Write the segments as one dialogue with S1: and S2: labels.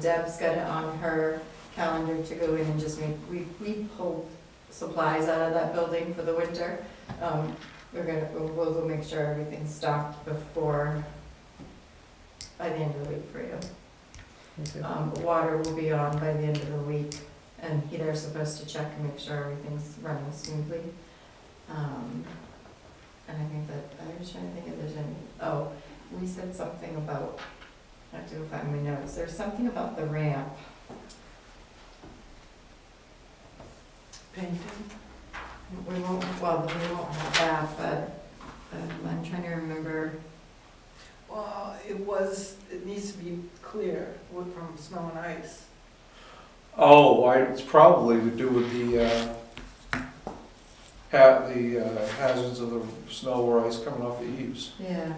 S1: Deb's got it on her calendar to go in and just make, we, we pulled supplies out of that building for the winter. Um, We're gonna, we'll, we'll go make sure everything's stocked before, by the end of the week for you.
S2: Okay.
S1: Um, Water will be on by the end of the week, and they're supposed to check and make sure everything's running smoothly. Um, And I think that, I was trying to think if there's any, oh, we said something about, I have to go find my notes, there's something about the ramp. Painting? We won't, well, we won't have that, but um, I'm trying to remember,
S3: Well, it was, it needs to be clear with- from snow and ice.
S4: Oh, I, it's probably to do with the, uh, ha, the uh, hazards of the snow or ice coming off the eaves.
S1: yeah,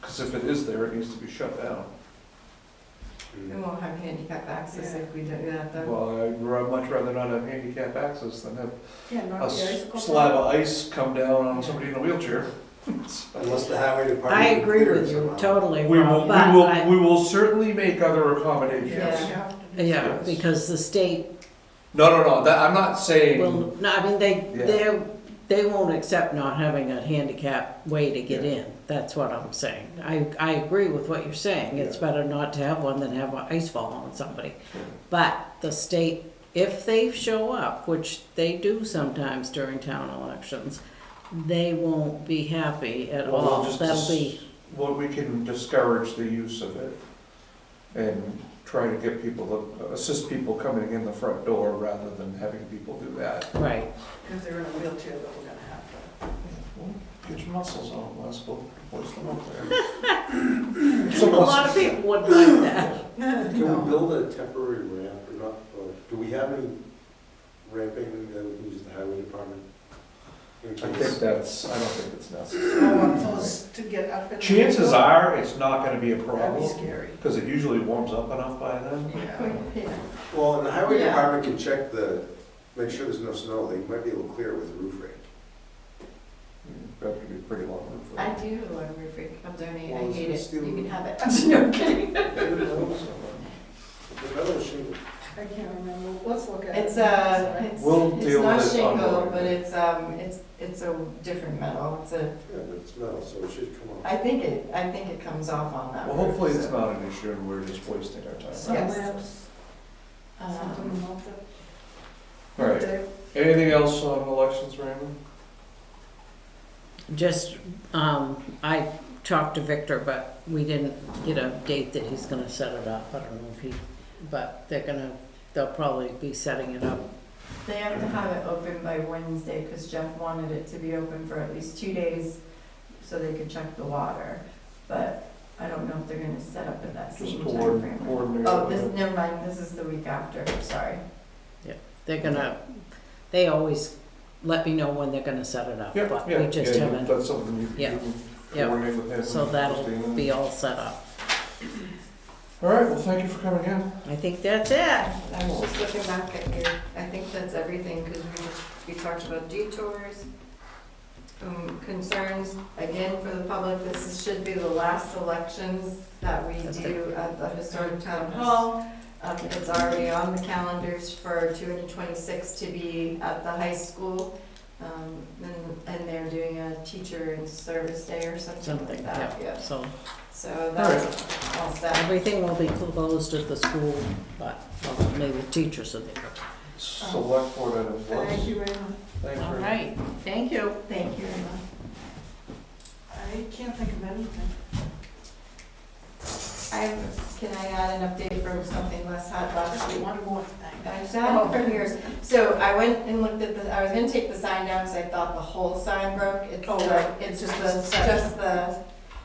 S4: Because if it is there, it needs to be shut down.
S1: we won't have handicap access if we do that, though.
S4: Well, I'd ra- much rather not have handicap access than have
S3: Yeah,
S4: a
S3: not the
S4: s-
S3: icicle.
S4: slab of ice come down on somebody in a wheelchair.
S5: Unless the highway department.
S2: I agree
S5: clears
S2: with you
S5: somehow.
S2: totally,
S4: We will,
S2: Rob,
S4: we
S2: but
S4: will,
S2: I,
S4: we will certainly make other
S1: Yeah.
S4: accommodations.
S3: Yes, you have to do
S2: yeah,
S4: Yes.
S2: because the state
S4: No, no, no, that, I'm not saying,
S2: will, no, I mean, they,
S4: Yeah.
S2: they, they won't accept not having a handicap way to get in. That's what I'm saying. I, I agree with what you're saying. It's
S4: Yeah.
S2: better not to have one than have an ice fall on somebody. But the state, if they show up, which they do sometimes during town elections, they won't be happy at
S4: Well, we'll
S2: all.
S4: just
S2: That'll
S4: dis-
S2: be
S4: well, we can discourage the use of it and try to get people, to assist people coming in the front door rather than having people do that.
S2: Right.
S3: If they're in a wheelchair, that we're gonna have to.
S4: Get your muscles on, Les, we'll hoist them up there. So
S2: A lot of people would like that.
S5: Can we build a temporary ramp or not, or do we have any ramping that we can use the highway department? in
S4: I
S5: case?
S4: think that's, I don't think it's necessary.
S3: I want those to get up in. the
S4: Chances
S3: window.
S4: are, it's not gonna be a
S3: That'd be
S4: problem,
S3: scary.
S4: because it usually warms up enough by then.
S3: Yeah.
S1: Yeah.
S5: Well, and the highway
S1: Yeah.
S5: department can check the, make sure there's no snow, they might be able to clear it with a roof rake.
S4: That'd have to be a pretty long roof.
S1: I do love root freak. I'll donate, I
S5: Well, it's
S1: hate
S5: gonna
S1: it, you
S5: steal-
S1: can have it, I'm no kidding.
S5: The metal shingle,
S3: I can't remember, let's look at it.
S1: It's a, it's,
S4: We'll
S1: it's
S4: deal
S1: not
S4: with it on the
S1: shingle,
S4: way.
S1: but it's, um, it's, it's a different metal, it's a,
S5: yeah, but it's metal, so it should come off.
S1: I think it, I think it comes off on that.
S4: Well,
S1: roof,
S4: hopefully it's
S1: so,
S4: not an issue and we're just wasting our time.
S3: Some
S1: Yes.
S3: lamps, something
S1: um,
S3: about the.
S4: All right, anything else on elections, Raymond?
S2: Just, um, I talked to Victor, but we didn't get a date that he's gonna set it up. I don't know if he, but they're gonna, they'll probably be setting it up.
S1: They have to have it open by Wednesday, cause Jeff wanted it to be open for at least two days, so they could check the water. But I don't know if they're gonna set up at that
S4: Just
S1: same
S4: coordinate,
S1: timeframe.
S4: coordinate.
S1: Oh, this, never mind, this is the week after, sorry.
S2: They're gonna, they always let me know when they're gonna set it up,
S4: Yeah,
S2: but
S4: yeah,
S2: we just
S4: yeah, you-
S2: haven't,
S4: That's something you
S2: Yeah,
S4: can do,
S2: yeah.
S4: coordinate with him.
S2: so that'll
S4: Christine.
S2: be all set up.
S4: All right, well, thank you for coming in.
S2: I think that's it.
S1: I was just looking back at your, I think that's everything, because we, we talked about detours, um, concerns, again, for the public, this is- should be the last elections that we
S2: That's
S1: do at the historic town hall. Um, it's already on the calendars for two and twenty-six to be at the high school, um, and, and they're doing a teacher and service day or something like
S2: Something,
S1: that,
S2: yeah,
S1: yes.
S2: so
S1: So that's all set.
S2: everything will be closed at the school, but well, maybe the teachers are there.
S4: Select board items,
S3: Thank
S4: Les.
S3: you, Anna.
S4: Thanks,
S2: All
S4: Ray.
S2: right, thank you.
S1: Thank you, Emma.
S3: I can't think of anything.
S1: I, can I add an update from something less hot last
S3: Just
S1: week?
S3: one more thing.
S1: I just
S3: Oh.
S1: had it from yours. So I went and looked at the, I was gonna take the sign down because I thought the whole sign broke. It's
S3: Oh,
S1: the,
S3: right.
S1: it's just the, just the,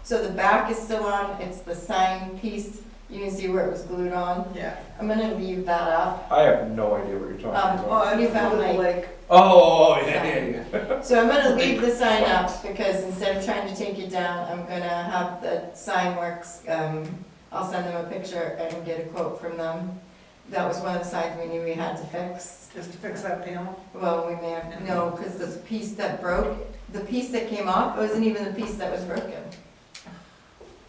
S1: so the back is still on, it's the sign piece. You can see where it was glued on.
S3: Yeah.
S1: I'm gonna leave that up.
S4: I have no idea what you're talking
S1: Um,
S4: about.
S3: Oh,
S1: You found my-
S3: my like
S4: Oh, yeah, yeah, yeah.
S1: So I'm gonna leave the sign up because instead of trying to take it down, I'm gonna have the sign works, um, I'll send them a picture and get a quote from them. That was one of the signs we knew we had to fix.
S3: Just to fix that panel.
S1: Well, we may have, no, because the piece that broke, the piece that came off wasn't even the piece that was broken.